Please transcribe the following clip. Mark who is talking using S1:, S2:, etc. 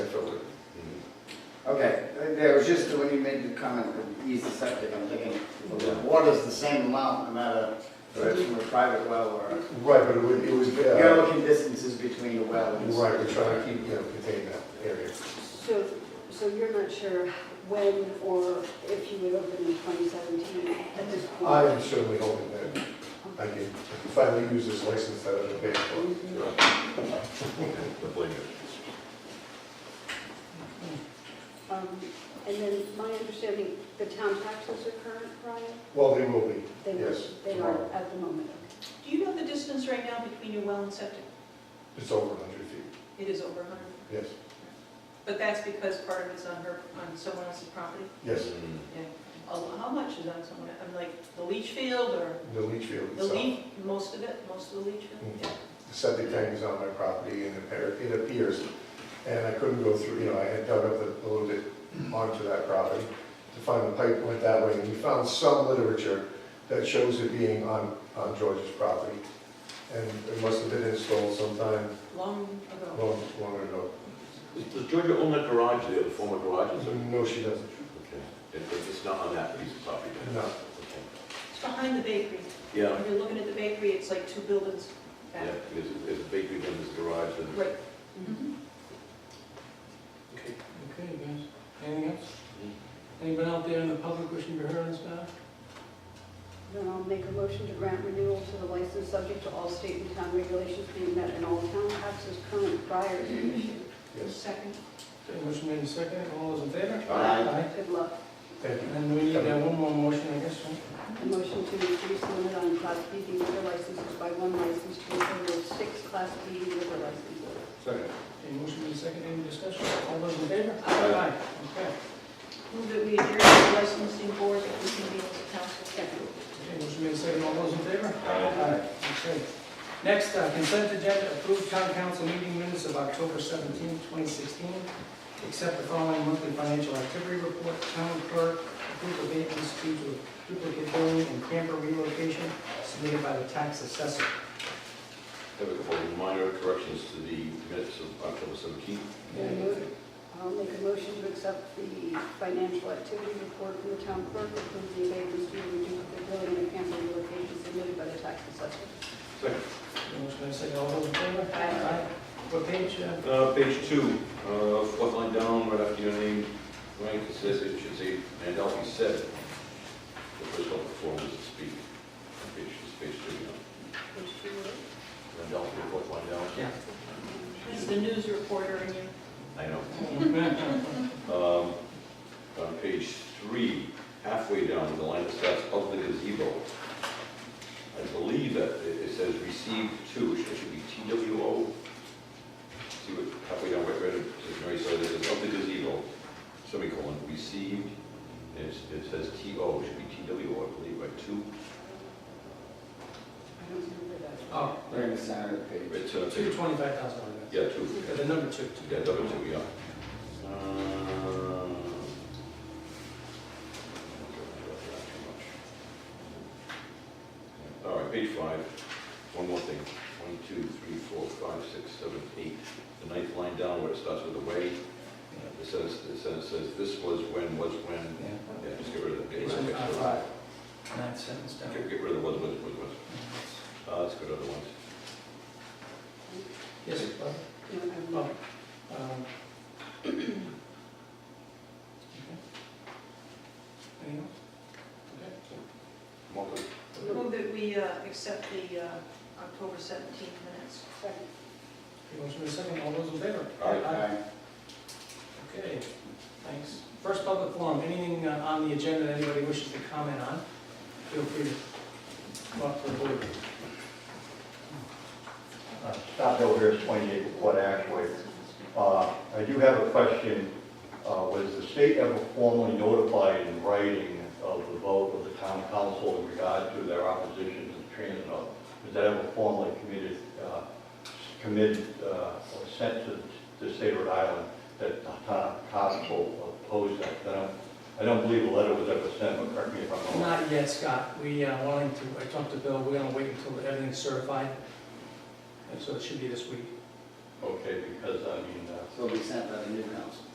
S1: Okay, there was just, when you made the comment, of easy septic, I'm thinking, the water's the same amount, no matter if it's from a private well or,
S2: Right, but it was, it was,
S1: you're
S2: uh,
S1: looking distances between the well and.
S2: right, we're trying to keep, you know, contain that area.
S3: So, so you're not sure when or if you would open in 2017 at this point?
S2: I am certainly hoping that I can finally use this license that I've been paying for.
S3: Um, And then my understanding, the town taxes are current, Brian?
S2: Well, they will be,
S3: They-
S2: yes,
S3: They are
S2: tomorrow.
S3: at the moment.
S4: Do you know the distance right now between your well and septic?
S2: It's over 100 feet,
S4: It is over 100.
S2: yes,
S4: But that's because part of it's on her, on someone else's property?
S2: yes.
S4: Oh, How much is on someone, I'm like, the leach field or
S2: The leach field
S4: the leach,
S2: itself,
S4: most of it, most of the leach field?
S2: Mhm. the septic tank is on my property and it appear- it appears, and I couldn't go through, you know, I had dug up a little bit onto that property to find the pipe went that way, and we found some literature that shows it being on, on George's property. And it must have been installed sometime
S4: Long ago.
S2: Long, long ago.
S5: Does Georgia own that garage there, the former garage? is there?
S2: No, she doesn't.
S5: Okay. It- It's not on that piece of property then?
S2: No.
S5: Okay.
S4: It's behind the bakery.
S5: Yeah,
S4: When you're looking at the bakery, it's like two buildings back.
S5: yeah, there's, a- there's a bakery, then there's a garage, then.
S4: Right. Mm-hmm.
S5: Okay.
S6: Okay, guys, anything else? Anyone out there in the public wishing to be heard on this matter?
S3: Then I'll make a motion to grant renewal to the license subject to all state and town regulations being met and all town taxes current prior to issue.
S2: Yes,
S4: Second,
S6: Okay, Motion made in second, all those in favor?
S1: Aye.
S3: Good luck.
S2: thank you.
S6: And then we need uh, one more motion, I guess, right?
S3: A motion to increase the limit on Class B liquor licenses by one license to a total of six Class B liquor licenses.
S2: Second.
S6: Okay, motion made in second, any discussion? All those in favor?
S5: Aye.
S6: Okay,
S4: move that we adjourn the licensing board that we can be able to counsel.
S3: Second.
S6: okay, motion made in second, all those in favor?
S5: Aye.
S6: Okay. Next, uh, consent agenda, approved town council meeting minutes of October 17, 2016. Accept the following monthly financial activity report, town clerk, approve abatements due to duplicate billing and camper relocation submitted by the tax assessor.
S5: Have a couple of minor corrections to the minutes of October 17th.
S3: I'll move- I'll make a motion to accept the financial activity report from the town clerk, approve the abatements due to duplicate billing and cancel relocation submitted by the tax assessor.
S5: Second.
S6: Motion made second, all those in favor?
S3: Aye.
S6: What page? uh,
S5: Uh, page two, uh, fourth line down, right after your name, Frank, it says, it should say, and I'll be said. The first one before was to speak. Page, it's page two, you know.
S3: Which two were?
S5: And I'll be fourth line down.
S6: Yeah.
S4: This is the news reporter in you.
S5: I know.
S6: Okay,
S5: Um, On page three, halfway down, the line that starts of the gazebo. I believe that it it says received to, it should be TWO. See what, halfway down, right, right, it says, Mary Sawyer, it says of the gazebo, semicolon, received, and it's- it says TO, it should be TWO, I believe, right, two,
S3: I don't remember that.
S6: Oh,
S1: Right in the center of the page.
S5: right, uh,
S6: two
S5: two,
S6: twenty-five thousand
S5: yeah, two.
S6: dollars. The number two.
S5: Yeah, double two, yeah. Um, All right, page five, one more thing, one, two, three, four, five, six, seven, eight, the ninth line down where it starts with the way, Uh, it says, it says, says, this was when, was when,
S6: Yeah.
S5: yeah, just get rid of the.
S6: Page one five five. Ninth sentence down.
S5: Get, get rid of the was, was, was, was, uh, let's go to other ones.
S6: Yes, Bob?
S3: No, I don't
S6: Bob?
S3: know.
S6: um, okay. Anything else? Okay.
S5: Come on,
S4: Move that we uh, accept the uh, October 17th minutes.
S3: Second.
S6: Okay, Motion in second, all those in favor?
S5: Aye.
S6: Okay, thanks. First public forum, anything uh, on the agenda that anybody wishes to comment on, feel free to come up to the board.
S7: Uh, Scott Hill here, 28 Quad Ashway. Uh, I do have a question. Uh, Was the state ever formally notified in writing of the vote of the town council in regard to their opposition to the transit hub? Was that ever formally committed, uh, committed, uh, or sent to the state of Rhode Island that the town council opposed that? I don't- I don't believe a letter was ever sent, but correct me if I'm wrong.
S6: Oh, Not yet, Scott, we uh, wanting to, I talked to Bill, we're gonna wait until everything's certified, and so it should be this week.
S7: Okay, because I mean, uh,
S1: So we sent that in, didn't